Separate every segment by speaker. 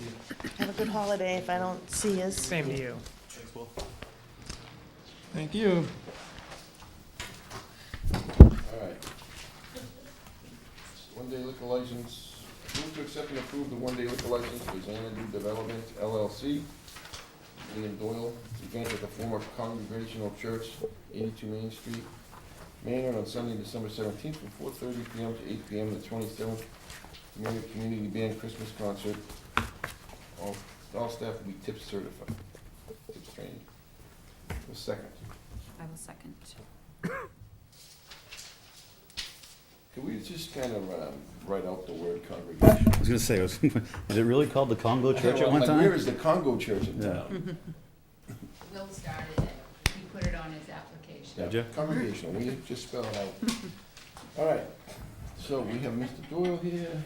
Speaker 1: you.
Speaker 2: Have a good holiday if I don't see yous.
Speaker 3: Same to you.
Speaker 1: Thanks, Will.
Speaker 4: Thank you.
Speaker 5: All right. One-day liquor license, move to accept and approve the one-day liquor license for Xanadu Development LLC. William Doyle, event at the former Congregational Church, eighty-two Main Street, Manor, on Sunday, December seventeenth, from four thirty PM to eight PM, the twenty-seventh, Manor Community Band Christmas Concert. All, all staff will be tip certified, tips trained. A second.
Speaker 6: I will second.
Speaker 5: Can we just kind of um, write out the word congregation?
Speaker 7: I was gonna say, was, is it really called the Congo Church at one
Speaker 5: Like, Where
Speaker 7: time?
Speaker 5: is the Congo church in
Speaker 7: Yeah.
Speaker 5: town?
Speaker 6: Will started it. He put it on his application.
Speaker 7: Did ya?
Speaker 5: Congregational, we just spell it out. All right, so we have Mr. Doyle here.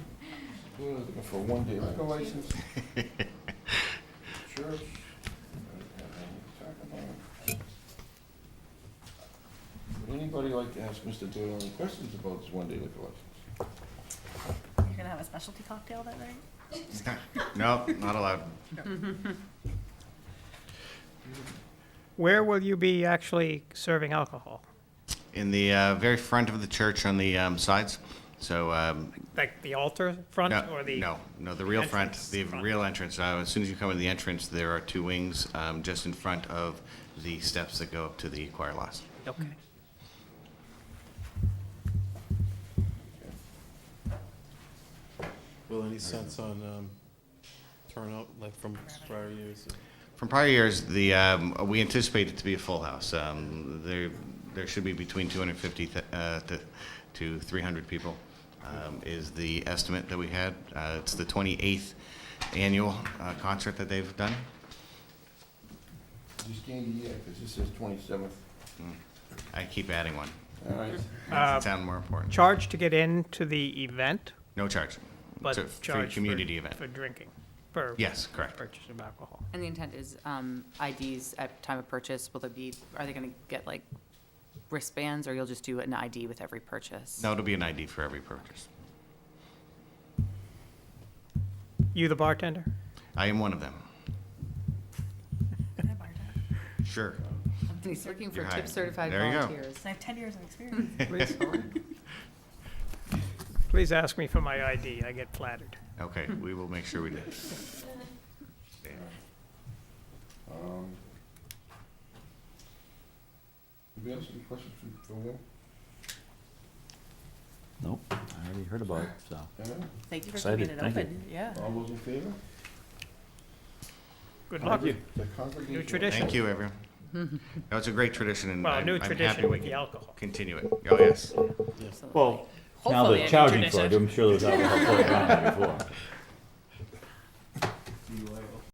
Speaker 5: Doyle is looking for a one-day liquor license. Church. I don't have anything to talk about. Would anybody like to ask Mr. Doyle any questions about this one-day liquor license?
Speaker 2: You're gonna have a specialty cocktail that night?
Speaker 8: No, not allowed.
Speaker 3: Where will you be actually serving alcohol?
Speaker 8: In the uh, very front of the church on the um, sides, so. um,
Speaker 3: Like the altar front
Speaker 8: no-
Speaker 3: or the?
Speaker 8: No, no, the real front,
Speaker 3: entrance
Speaker 8: the
Speaker 3: front?
Speaker 8: real entrance. Uh, As soon as you come in the entrance, there are two wings um, just in front of the steps that go up to the choir loft.
Speaker 3: Okay.
Speaker 1: Will, any sense on um, turnout, like from prior years?
Speaker 8: From prior years, the, um, we anticipate it to be a full house. Um, There, there should be between 250 th- uh, to- to 300 people um, is the estimate that we had. Uh, It's the 28th annual uh, concert that they've done.
Speaker 5: Just gain the year, because this says twenty-seventh.
Speaker 8: I keep adding one.
Speaker 5: All right.
Speaker 8: Makes
Speaker 3: Uh,
Speaker 8: it sound more important.
Speaker 3: Charge to get into the event,
Speaker 8: No charge.
Speaker 3: but
Speaker 8: It's a free
Speaker 3: charge
Speaker 8: community
Speaker 3: for,
Speaker 8: event.
Speaker 3: for drinking, for
Speaker 8: Yes, correct.
Speaker 3: purchase of alcohol.
Speaker 6: And the intent is um, IDs at time of purchase, will there be, are they going to get like wristbands or you'll just do an ID with every purchase?
Speaker 8: No, it'll be an ID for every purchase.
Speaker 3: You the bartender?
Speaker 8: I am one of them. Sure.
Speaker 6: He's looking for
Speaker 8: You're hired.
Speaker 6: tip certified
Speaker 8: There you go.
Speaker 6: volunteers.
Speaker 2: I have ten years of experience.
Speaker 3: Please- Please ask me for my ID, I get flattered.
Speaker 8: Okay, we will make sure we do.
Speaker 5: Um, Anybody else have any questions for- for Will?
Speaker 7: Nope, I already heard about it, so.
Speaker 5: No?
Speaker 2: Thank you for
Speaker 7: Excited,
Speaker 2: keeping it
Speaker 7: thank you.
Speaker 2: open, yeah.
Speaker 5: All those in favor?
Speaker 3: Good luck.
Speaker 5: The congregation.
Speaker 3: New tradition.
Speaker 8: Thank you, everyone. No, it's a great tradition, and
Speaker 3: Well,
Speaker 8: I'm
Speaker 3: new
Speaker 8: I'm happy
Speaker 3: tradition
Speaker 8: we
Speaker 3: with the
Speaker 8: can
Speaker 3: alcohol.
Speaker 8: Continue it. Oh, yes.
Speaker 6: Absolutely.
Speaker 7: Well, now
Speaker 6: Hopefully, I
Speaker 7: they're
Speaker 6: can
Speaker 7: charging
Speaker 3: tradition.
Speaker 7: for it, I'm sure there was alcohol floating around there before.